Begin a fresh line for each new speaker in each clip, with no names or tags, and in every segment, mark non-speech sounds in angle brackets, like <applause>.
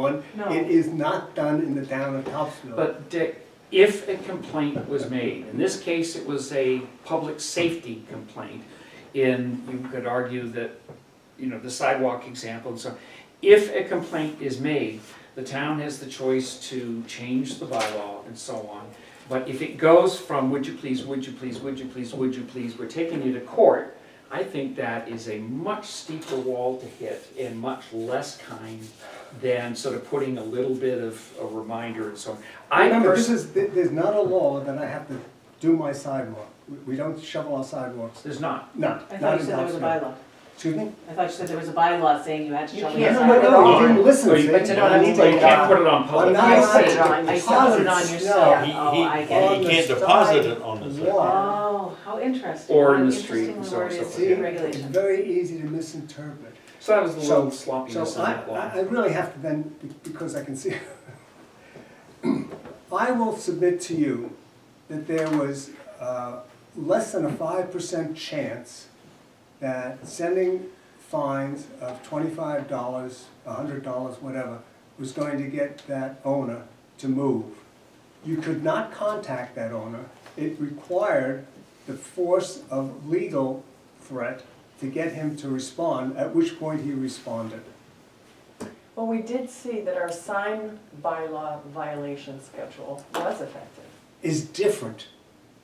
one.
No.
It is not done in the town of Topsfield.
But Dick, if a complaint was made, in this case, it was a public safety complaint, and you could argue that, you know, the sidewalk example and so on. If a complaint is made, the town has the choice to change the bylaw and so on. But if it goes from, would you please, would you please, would you please, would you please, we're taking you to court, I think that is a much steeper wall to hit and much less kind than sort of putting a little bit of a reminder and so on. I
Remember, this
personally,
is, th- there's not a law that I have to do my sidewalk. We- We don't shovel our sidewalks,
there's not.
no,
I thought
not
you
in
said there was a
Topsfield.
bylaw.
Excuse me?
I thought you said there was a bylaw saying you had to
You
shovel your
can't.
No,
sidewalk.
no, no, you didn't listen,
Or
see?
you put it on,
I
you
need to-
can't put it on public.
Well, now
I
I
see it
have
on-
to
I still put it on
deposit
your
snow
stuff.
He, he,
Oh, I
get it.
he can't
On the
deposit
side.
it on the side.
Law.
Oh, how interesting.
Or in
How
the street and so on and
Interesting
so
the word
See,
is
it's
regulation.
very easy to misinterpret.
So that was the
So-
little
So
sloppiness on
I,
that
I-
one.
I really have to then, be- because I can see. <clears throat> I will submit to you that there was uh, less than a five percent chance that sending fines of twenty-five dollars, hundred dollars, whatever, was going to get that owner to move. You could not contact that owner. It required the force of legal threat to get him to respond, at which point he responded.
Well, we did see that our sign bylaw violation schedule was effective.
is different.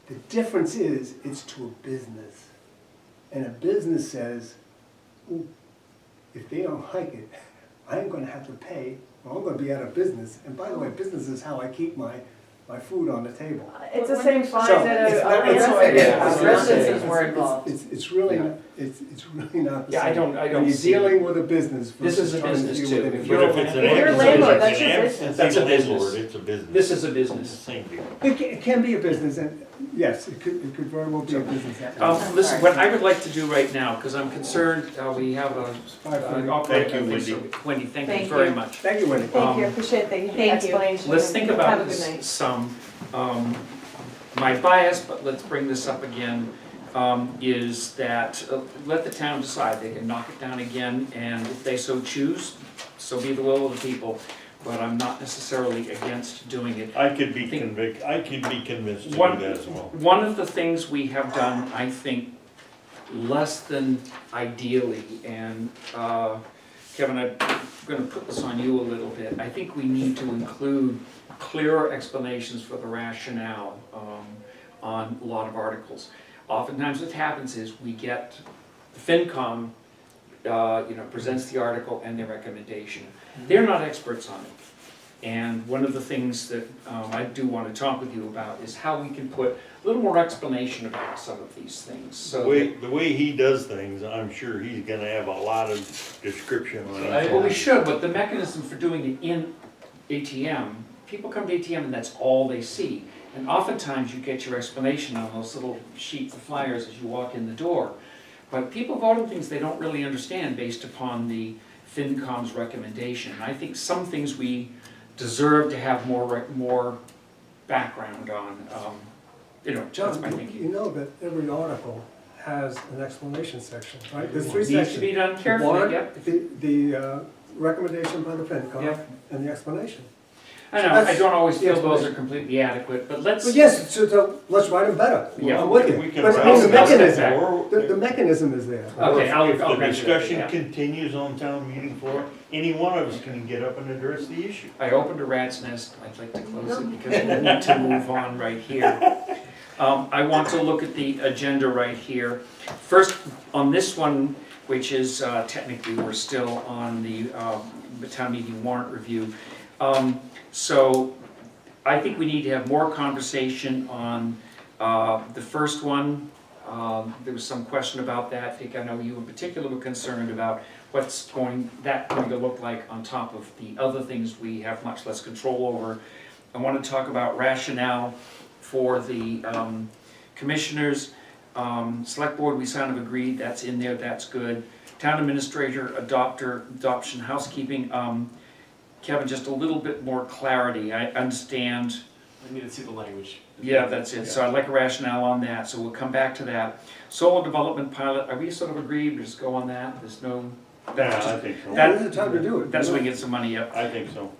The difference is, it's to a business. And a business says, "Ooh, if they don't like it, <laughs> I'm gonna have to pay, or I'm gonna be out of business. And by the way, business is how I keep my, my food on the table.
It's the same fines
So,
that
it's not-
a- a
it's-
resort,
yeah,
a
it's-
residences
it's-
were involved.
It's, it's really,
Yeah.
not- it's, it's really not the
Yeah, I
same.
don't- I don't
When you're
see-
dealing with a business
This
versus
is a
trying to
business
deal
too.
with an
If
individual.
you're
But if
a-
it's an
If you're
ambulance,
landlord,
it's
that's
an
your
ambulance,
business.
That's a
it's
business.
landlord, It's a business.
This is a
It's the
business.
same deal.
It can, it can be a business, and yes, it could, it could very well be a business.
Oh,
Um, listen, what I would like to do right now, because I'm concerned, uh, we have a.
Five thirty.
uh,
Thank you,
I think so. Wendy, thank you
Thank
very
you.
much.
Thank you, Winnie.
Thank you,
Um,
appreciate
Thank
the
you.
explanation.
Let's think
Have a
about
good night.
this some. Um, My bias, but let's bring this up again, um, is that uh, let the town decide. They can knock it down again, and if they so choose, so be the will of the people. But I'm not necessarily against doing it.
I could be
Think-
convic, I could be convinced to do
One-
that as well.
One of the things we have done, I think, less than ideally, and uh, Kevin, I'm gonna put this on you a little bit. I think we need to include clearer explanations for the rationale um, on a lot of articles. Oftentimes what happens is we get, FinCom, uh, you know, presents the article and their recommendation. They're not experts on it. And one of the things that um, I do want to talk with you about is how we can put a little more explanation about some of these things,
The
so.
way, the way he does things, I'm sure he's gonna have a lot of description on
that-
it.
Well, we should, but the mechanism for doing it in ATM, people come to ATM and that's all they see. And oftentimes you get your explanation on those little sheets of flyers as you walk in the door. But people vote on things they don't really understand based upon the FinCom's recommendation. And I think some things we deserve to have more, rec- more background on, um, you know, that's my
John, you- you
thinking.
know that every article has an explanation section, right? There's three
Needs to be
sections.
done
The
carefully,
warrant,
yep.
the, the uh, recommendation by the
Yeah.
FinCom, and the explanation.
I know, I don't always feel
Yes,
those
please.
are completely adequate, but let's.
But yes, so, so let's write them better.
Yeah.
I'm with
We
you.
can
But
write
the
'em better.
mechanism,
Or-
the, the mechanism is there.
Okay, I'll, I'll
If the
grant you that,
discussion
yeah.
continues on town meeting floor, any one of us can get up and address the issue.
I opened a rat's nest, I'd like to close it because we need to move on right here. Um, I want to look at the agenda right here. First, on this one, which is uh, technically, we're still on the um, town meeting warrant review. Um, So I think we need to have more conversation on uh, the first one. Um, There was some question about that. I think I know you in particular were concerned about what's going, that going to look like on top of the other things we have much less control over. I want to talk about rationale for the um, commissioners. Um, Select board, we kind of agreed, that's in there, that's good. Town administrator, adopter, adoption, housekeeping. um, Kevin, just a little bit more clarity. I understand
I need to see the language.
yeah, that's it, so I'd like a rationale on that, so we'll come back to that. Solar development pilot, are we sort of agreed, just go on that, there's no,
Yeah, I think so.
There's a time to do it.
That's
you know?
when we get some money up.
I think so.